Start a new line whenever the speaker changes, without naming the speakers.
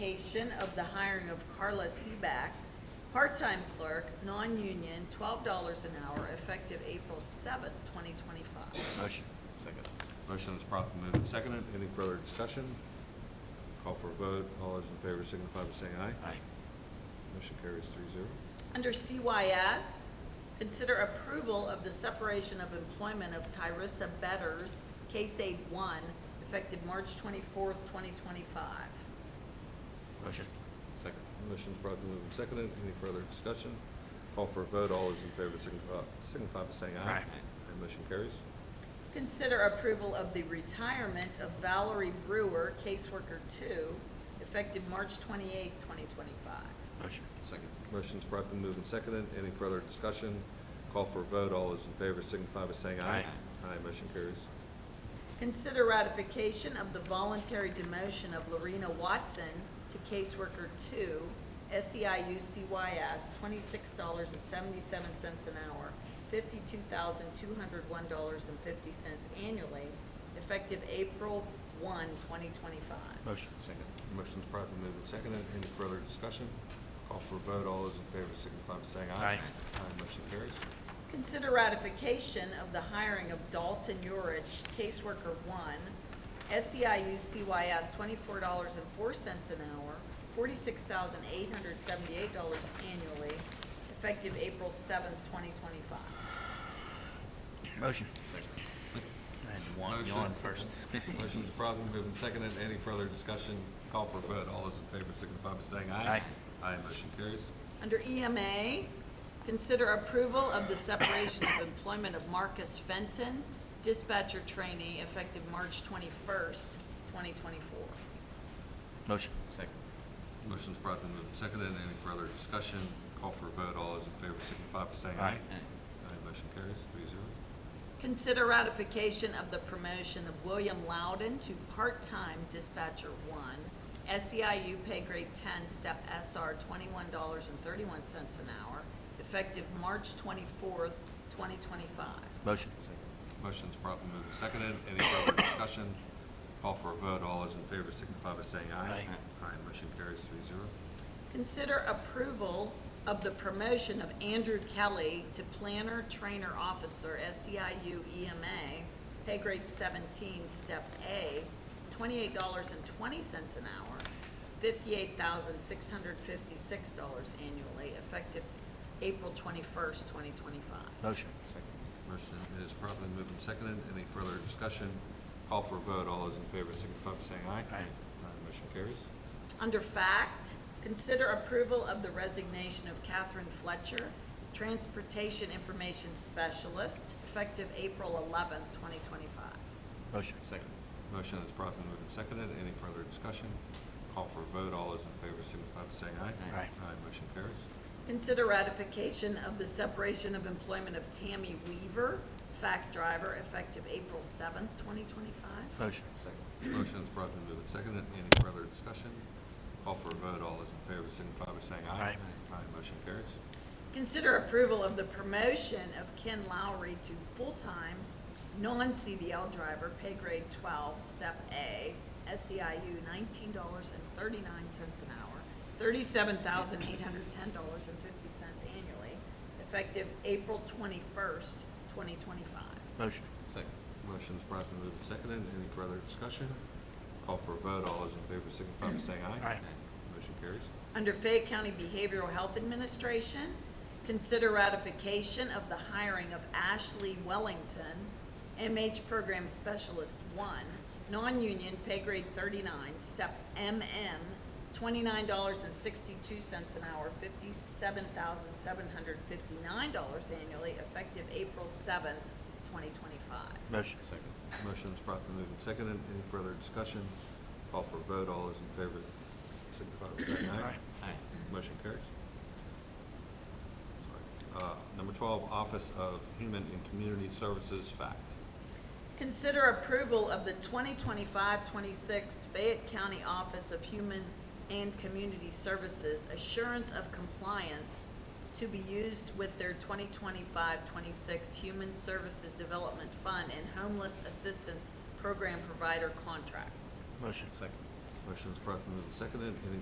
ratification of the hiring of Carla Seaback, part-time clerk, non-union, twelve dollars an hour, effective April seventh, twenty twenty-five.
Motion.
Second.
Motion is promptly moved and seconded. Any further discussion? Call for a vote. All those in favor signify by saying aye.
Aye.
Motion carries three zero.
Under CYS, consider approval of the separation of employment of Tyrissa Betters, Case Aid One, effective March twenty-fourth, twenty twenty-five.
Motion.
Second. Motion is promptly moved and seconded. Any further discussion? Call for a vote. All those in favor signify, signify by saying aye.
Aye.
And motion carries.
Consider approval of the retirement of Valerie Brewer, caseworker two, effective March twenty-eighth, twenty twenty-five.
Motion.
Second. Motion is promptly moved and seconded. Any further discussion? Call for a vote. All those in favor signify by saying aye.
Aye.
Aye. Motion carries.
Consider ratification of the voluntary demotion of Lorena Watson to caseworker two, E SEIU CYS, twenty-six dollars and seventy-seven cents an hour, fifty-two thousand two hundred one dollars and fifty cents annually, effective April one, twenty twenty-five.
Motion. Second.
Motion's promptly moved and seconded. Any further discussion? Call for a vote. All those in favor signify by saying aye.
Aye.
Aye, motion carries.
Consider ratification of the hiring of Dalton Urich, caseworker one, E SEIU CYS, twenty-four dollars and four cents an hour, forty-six thousand eight hundred seventy-eight dollars annually, effective April seventh, twenty twenty-five.
Motion. Second. I had to wa-
Motion.
yawn first.
Motion's promptly moved and seconded. Any further discussion? Call for a vote. All those in favor signify by saying aye.
Aye.
Aye, motion carries.
Under EMA, consider approval of the separation of employment of Marcus Fenton, dispatcher trainee, effective March twenty-first, twenty twenty-four.
Motion. Second.
Motion's promptly moved and seconded. Any further discussion? Call for a vote. All those in favor signify by saying aye.
Aye.
Aye, motion carries, three zero.
Consider ratification of the promotion of William Loudon to part-time dispatcher one, SEIU pay grade ten, step SR, twenty-one dollars and thirty-one cents an hour, effective March twenty-fourth, twenty twenty-five.
Motion.
Motion's promptly moved and seconded. Any further discussion? Call for a vote. All those in favor signify by saying aye.
Aye.
Aye, motion carries, three zero.
Consider approval of the promotion of Andrew Kelly to planner, trainer, officer, SEIU EMA, E pay grade seventeen, step A, twenty-eight dollars and twenty cents an hour, fifty-eight thousand six hundred fifty-six dollars annually, effective April twenty-first, twenty twenty-five.
Motion. Second.
Motion is properly moved and seconded. Any further discussion? Call for a vote. All those in favor signify by saying aye.
Aye.
motion carries.
Under fact, consider approval of the resignation of Catherine Fletcher, transportation information specialist, effective April eleventh, twenty twenty-five.
Motion. Second.
Motion is properly moved and seconded. Any further discussion? Call for a vote. All those in favor signify by saying aye.
Aye. Aye.
motion carries.
Consider ratification of the separation of employment of Tammy Weaver, fact driver, effective April seventh, twenty twenty-five.
Motion. Second.
Motion is properly moved and seconded. Any further discussion? Call for a vote. All those in favor signify by saying aye.
Aye.
motion carries.
Consider approval of the promotion of Ken Lowry to full-time, non-CDL driver, pay grade twelve, step A, SEIU, nineteen dollars and thirty-nine cents an hour, thirty-seven thousand eight hundred ten dollars and fifty cents annually, effective April twenty-first, twenty twenty-five.
Motion.
Second. Motion is properly moved and seconded. Any further discussion? Call for a vote. All those in favor signify by saying aye.
Aye.
Motion carries.
Under Fayette County Behavioral Health Administration, consider ratification of the hiring of Ashley Wellington, MH Program Specialist One, non-union, pay grade thirty-nine, step MM, twenty-nine dollars and sixty-two cents an hour, fifty-seven thousand seven hundred fifty-nine dollars annually, effective April seventh, twenty twenty-five.
Motion. Second.
Motion is promptly moved and seconded. Any further discussion? Call for a vote. All those in favor signify by saying aye.
Aye.
Motion carries. Sorry. Uh, Number 12, Office of Human and Community Services, fact.
Consider approval of the 2025-26 Fayette County Office of Human and Community Services Assurance of Compliance to be used with their 2025-26 Human Services Development Fund and Homeless Assistance Program Provider contracts.
Motion. Second.
Motion is promptly moved and seconded. Any